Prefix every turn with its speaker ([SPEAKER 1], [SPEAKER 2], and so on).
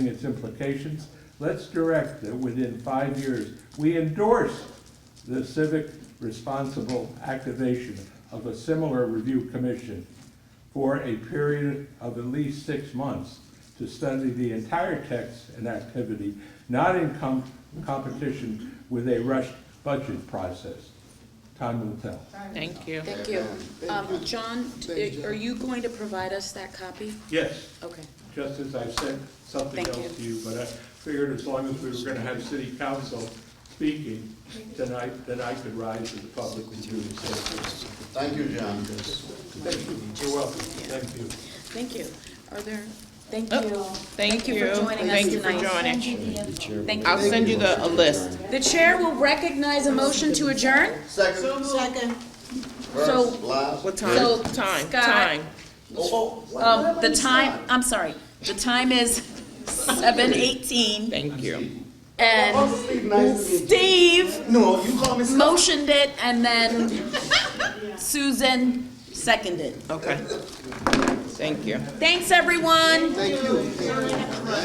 [SPEAKER 1] its implications, let's direct that within five years, we endorse the civic responsible activation of a similar review commission for a period of at least six months to study the entire text and activity, not in com- competition with a rushed budget process. Time will tell.
[SPEAKER 2] Thank you.
[SPEAKER 3] Thank you. Um, John,
[SPEAKER 4] Thank you,
[SPEAKER 3] are you going to provide us that copy?
[SPEAKER 1] Yes.
[SPEAKER 3] Okay.
[SPEAKER 1] just as I sent something
[SPEAKER 3] Thank
[SPEAKER 1] else to you, but I figured as long as we were gonna have city council speaking, then I, then I could rise to the public and do the same.
[SPEAKER 4] Thank you, John.
[SPEAKER 1] Thank you, you're welcome, thank you.
[SPEAKER 3] Thank you. Are there, thank
[SPEAKER 2] Oh,
[SPEAKER 3] you.
[SPEAKER 2] Thank you.
[SPEAKER 3] for joining us
[SPEAKER 2] Thank you for
[SPEAKER 3] tonight.
[SPEAKER 2] joining.
[SPEAKER 3] Thank
[SPEAKER 2] I'll
[SPEAKER 3] you.
[SPEAKER 2] send you the, a list.
[SPEAKER 3] The chair will recognize a motion to adjourn.
[SPEAKER 4] Second,
[SPEAKER 3] Second. So-
[SPEAKER 4] first, last.
[SPEAKER 2] What
[SPEAKER 3] So,
[SPEAKER 2] time? Time,
[SPEAKER 3] Scott-
[SPEAKER 2] time.
[SPEAKER 4] Oh, oh,
[SPEAKER 3] Um,
[SPEAKER 4] what
[SPEAKER 3] the
[SPEAKER 4] did I
[SPEAKER 3] time, I'm sorry, the time is seven eighteen
[SPEAKER 2] Thank you.
[SPEAKER 3] and
[SPEAKER 4] say? Steve, nice to meet you.
[SPEAKER 3] Steve
[SPEAKER 4] No, you call me Scott.
[SPEAKER 3] motioned it and then Susan seconded.
[SPEAKER 2] Okay. Thank you.
[SPEAKER 3] Thanks, everyone.